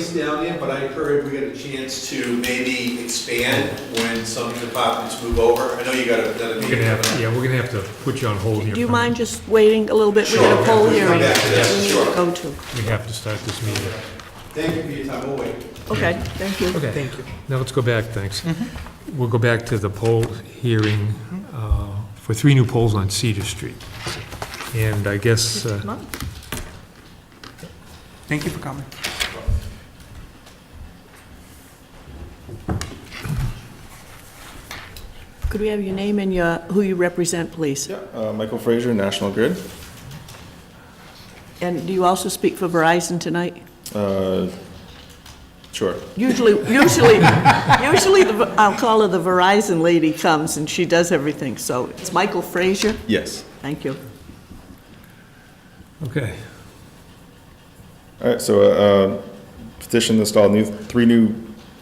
space down there, but I heard we get a chance to maybe expand when some of the departments move over. I know you got another We're gonna meeting. have, yeah, we're gonna have to put you on hold here. Do you for a mind just waiting a little bit? We've got a Sure. poll We'll come hearing back to that. we need to Sure. go to. minute. We have to start this meeting. Thank you for your time, we'll wait. Okay, thank you. Okay. Thank you. Mm-hmm. Now let's go back, thanks. We'll go back to the poll hearing uh, for three new polls on Cedar Street. And I guess, uh, Come on. Thank you for coming. Could we have your name and your, who you represent, please? Uh, Michael Frazier, National Grid. And do you also speak for Verizon tonight? Uh, Sure. Usually, usually, usually, the I'll call her the Verizon lady comes and she does everything, so it's Michael Frazier. Yes. Thank you. okay, All right, so uh, petition to install new, three new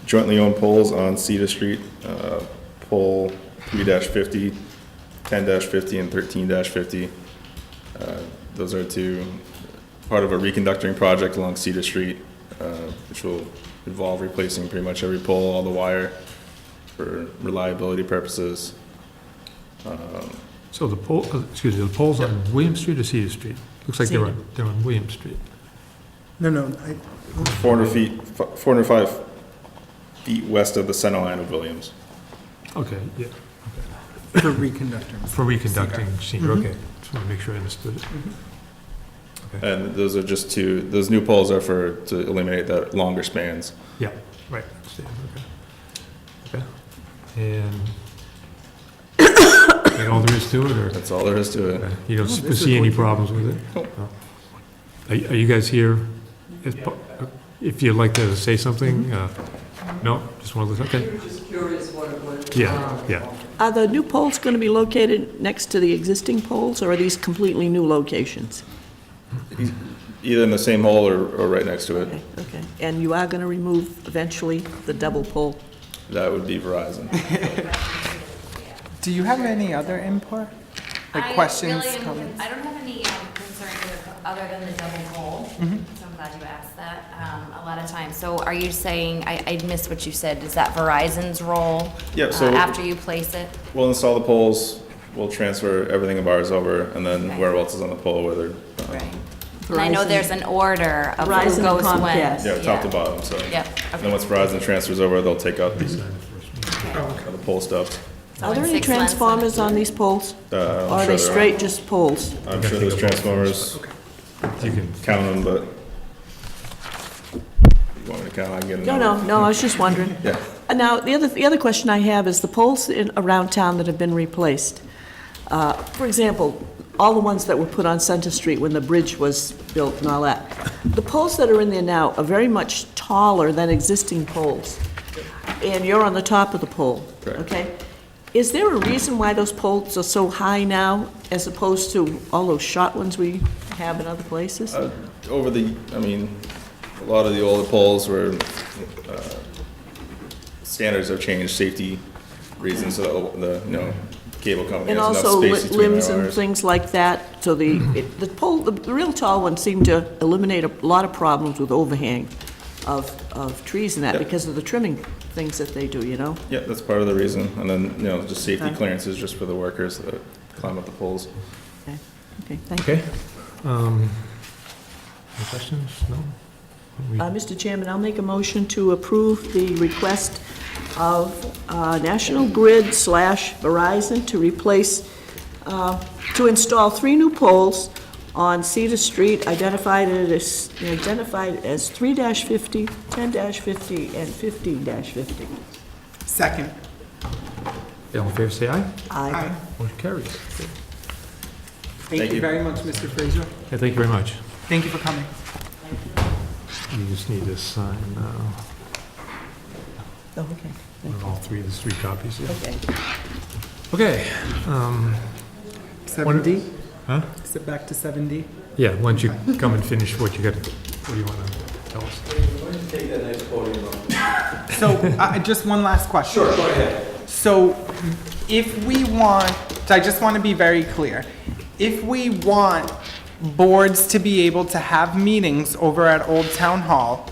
jointly owned poles on Cedar Street. uh, Pole 3-50, 10-50, and 13-50. Uh, Those are two, part of a reconductoring project along Cedar Street, uh, which will involve replacing pretty much every pole, all the wire, for reliability purposes. so the poll, uh, excuse me, the polls on William Street or Cedar Street? Looks like they're on, they're on William Street. No, no, I, 400 feet, f- 405 feet west of the center line of Williams. Okay, yeah, for reconducting. for reconducting Cedar, Mm-hmm. okay. Just want to make sure I understood it. And those are just two, those new poles are for, to eliminate that longer spans. Yeah, right, I understand, okay. Okay, and, and all there is to it, or? That's all there is to it. Okay, You don't No, this is see any what- problems with it? No. Are are you guys here? as pa- If you'd like to say Mm-hmm. something? uh, No? Just one of those, okay. We were just curious what it was. Um, Yeah, yeah. Are the new poles going to be located next to the existing poles, or are these completely new locations? Either in the same hole or, or right next to it. Okay, okay. And you are going to remove eventually the double pole? That would be Verizon. Do you have any other input? I Like don't questions, really am- comments? I don't have any um, concerns with- other than the double goal, so I'm glad you asked that, um, a lot of times. So are you saying, I, I missed what you said, is that Verizon's role? Yeah, uh, so- After you place it? We'll install the poles, we'll transfer everything of ours over, and then where else is on the pole, whether, um, Right. And I know Verizon. there's an order of Verizon who and goes when. Comcast. yeah, top to bottom, so. Yep, And okay. then once Verizon transfers over, they'll take out the, the pole stuff. Are there any Six months. transformers on these poles? Uh, I'm Or are they sure there are. straight just poles? I'm sure those transformers, You can, count them, but you want me to count, I can get a No, number. no, no, I was just wondering. Yeah. And now, the other, the other question I have is the poles in, around town that have been replaced. Uh, For example, all the ones that were put on Center Street when the bridge was built and all that. The poles that are in there now are very much taller than existing poles. And you're on the top of the pole, Correct. okay? Is there a reason why those poles are so high now as opposed to all those short ones we have in other places? Uh, Over the, I mean, a lot of the older poles were, uh, standards have changed, safety reasons, so the, the, you know, cable company And has also enough li- space between limbs their and wires. things like that, so the, it- the pole, the- the real tall ones seem to eliminate a lot of problems with overhang of, of trees and that, Yep. because of the trimming things that they do, you know? Yeah, that's part of the reason, and then, you know, just safety Okay. clearances just for the workers that climb up the poles. Okay, Okay, thank you. okay. Um, Any questions? No? We- Uh, Mr. Chairman, I'll make a motion to approve the request of uh, National Grid slash Verizon to replace, uh, to install three new poles on Cedar Street identified as, identified as 3-50, 10-50, and 15-50. Second. All in favor, say aye. Aye. Aye. Motion carries. Thank you you. very much, Mr. Fraser. Okay, thank you very much. Thank you for coming. You just need to sign uh, Oh, okay, on all three, there's three copies. yeah. okay. Okay, um, Seven D? Huh? Is it back to seven D? yeah, why don't you come and finish what you got, what do you want to tell us? So, I, I- just one last question. Sure, go ahead. So, if we want, I just want to be very clear. If we want boards to be able to have meetings over at Old Town Hall,